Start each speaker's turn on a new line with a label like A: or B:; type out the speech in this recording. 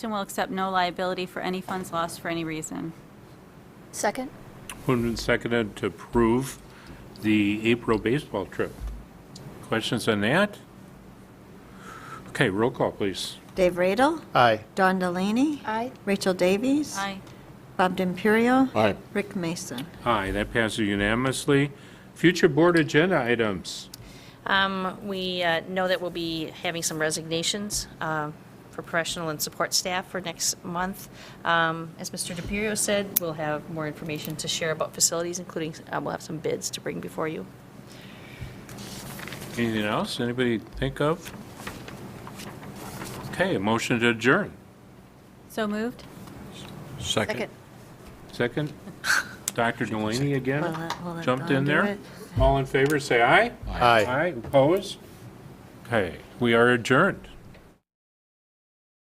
A: and will accept no liability for any funds lost for any reason.
B: Second?
C: Moved and seconded to approve the April baseball trip. Questions on that? Okay, roll call, please.
D: Dave Radel,
E: Aye.
D: Don Delaney,
B: Aye.
D: Rachel Davies,
A: Aye.
D: Bob D'Imperio,
E: Aye.
D: Rick Mason.
C: Aye, that passes unanimously. Future board agenda items.
F: Um, We uh, know that we'll be having some resignations uh, for professional and support staff for next month. Um, As Mr. DePiero said, we'll have more information to share about facilities, including, uh, we'll have some bids to bring before you.
C: Anything else anybody think of? Okay, a motion to adjourn.
A: So moved?
E: Second.
C: Second, Dr. Delaney
D: Will
C: again,
D: that- will that
C: jumped
D: Don
C: in
D: do
C: there.
D: it?
C: All in favor, say aye.
E: Aye.
C: Aye, opposed? Okay, we are adjourned.